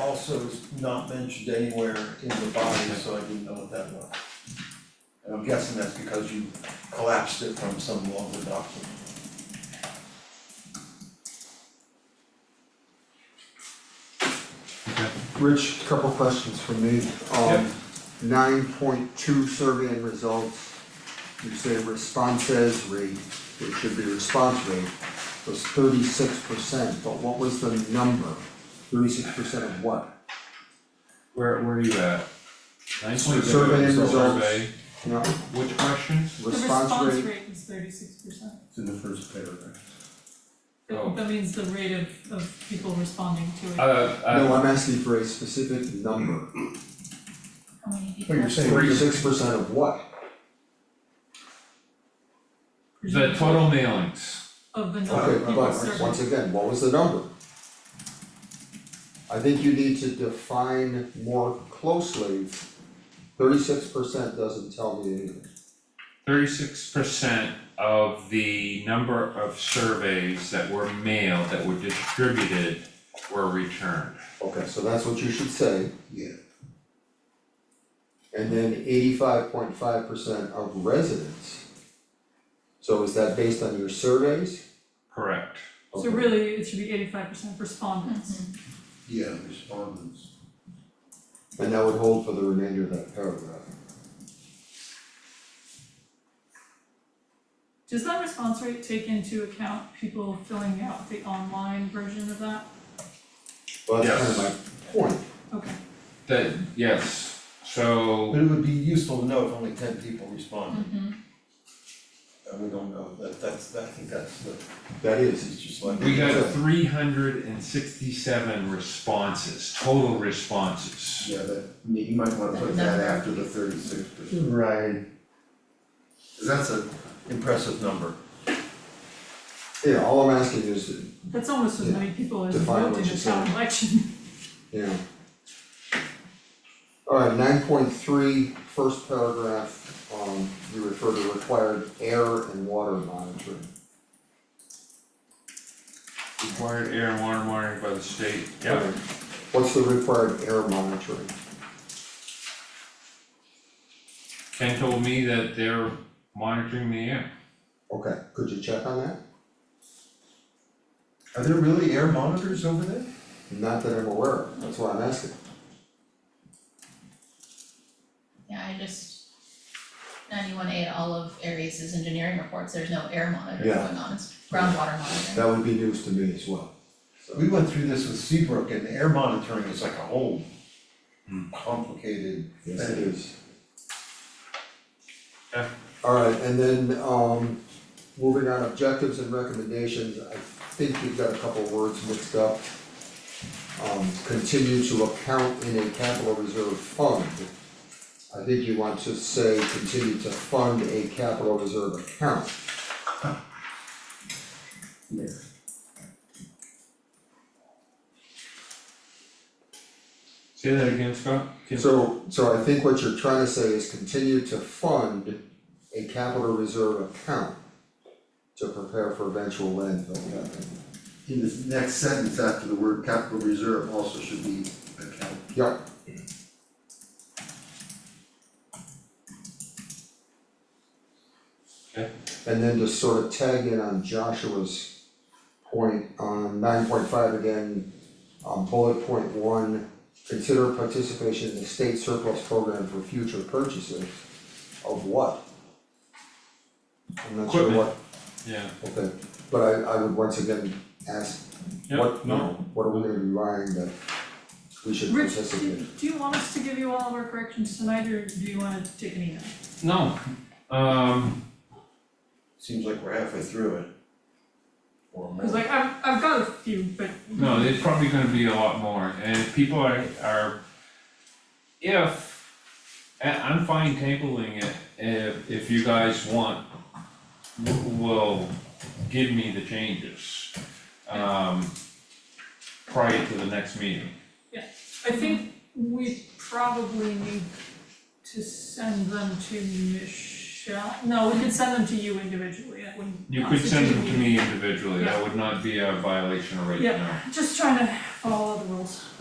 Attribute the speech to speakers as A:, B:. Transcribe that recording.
A: also is not mentioned anywhere in the body, so I didn't know what that was. And I'm guessing that's because you collapsed it from some longer document.
B: Rich, couple questions for me.
C: Yep.
B: Um, nine point two survey and results. You say responses rate, it should be response rate, was thirty-six percent, but what was the number? Thirty-six percent of what?
C: Where, where are you at? Nine point
B: Survey and
C: seven,
B: results.
C: survey,
B: No,
C: which question?
B: response rate,
D: is thirty-six percent.
A: It's in the first paragraph.
C: Oh.
D: That means the rate of, of people responding to it.
C: Uh,
B: no,
C: uh,
B: I'm asking for a specific number.
D: How many people?
A: But you're saying
B: Thirty-six percent of what?
C: the total mailings,
D: Of the number of
B: Okay,
D: people surveyed.
B: but once again, what was the number? I think you need to define more closely. Thirty-six percent doesn't tell me anything.
C: thirty-six percent of the number of surveys that were mailed, that were distributed, were returned.
B: Okay, so that's what you should say.
A: Yeah.
B: And then eighty-five point five percent of residents. So is that based on your surveys?
C: Correct.
D: So really, it should be eighty-five percent respondents.
A: Yeah, respondents.
B: And that would hold for the remainder of that paragraph.
D: Does that response rate take into account people filling out the online version of that?
B: Well, that's kind of my point.
D: Okay,
C: That, yes, so,
A: But it would be useful to know if only ten people responded. And we don't know, that, that's, I think that's the,
B: That
A: this
B: is,
A: is just like.
C: we got three hundred and sixty-seven responses, total responses.
E: Yeah, that, you might wanna put that after the thirty-six percent,
A: Right.
E: cause that's a,
A: Impressive number.
B: yeah, all I'm asking is,
D: that's almost as many people as
B: Define
D: voted
B: what
D: in
B: you're
D: the town
B: saying.
D: election.
B: Yeah. Alright, nine point three, first paragraph, um, you refer to required air and water monitoring.
C: Required air and water monitoring by the state, yep.
B: Alright, What's the required air monitoring?
C: Ken told me that they're monitoring the air.
B: Okay, could you check on that?
A: Are there really air monitors over there?
B: Not that I'm aware of, that's why I'm asking.
F: Yeah, I just, ninety-one A at all of Aries' engineering reports, there's no air monitor
B: Yeah.
F: going on, it's groundwater monitoring.
B: That would be news to me as well.
A: We went through this with Seabrook and air monitoring is like a whole
C: Hmm.
A: complicated
B: Yes, it
A: thing.
B: is.
C: Yeah.
B: Alright, and then, um, moving on, objectives and recommendations, I think you've got a couple words mixed up. Um, continue to account in a capital reserve fund. I think you want to say continue to fund a capital reserve account.
E: yeah.
C: Say that again, Scott? Can-
B: So, so I think what you're trying to say is continue to fund a capital reserve account to prepare for eventual landfill capital.
E: In the next sentence after the word capital reserve also should be account.
B: Yep.
C: Okay.
B: And then to sort of tag in on Joshua's point on nine point five again, on bullet point one, consider participation in the state surplus program for future purchases of what? I'm not sure
C: Equipment.
B: what,
C: Yeah,
B: okay, but I I would once again ask,
C: yeah,
B: what, you
C: no,
B: know, what are we gonna be buying that we should
D: Rich,
B: participate in?
D: do, do you want us to give you all of our corrections tonight, or do you wanna take an email?
C: no, um,
A: Seems like we're halfway through it. Or
D: Cause
A: more.
D: like, I've, I've got a few, but.
C: no, there's probably gonna be a lot more, and if people are, are. If, I, I'm fine tabling it, if, if you guys want, w- will give me the changes. Um, prior to the next meeting,
D: I think we probably need to send them to Michelle, no, we could send them to you individually, that wouldn't.
C: you could send them to
D: constitute
C: me individually, that would not be a violation right now.
D: Yeah. Just trying to follow the rules.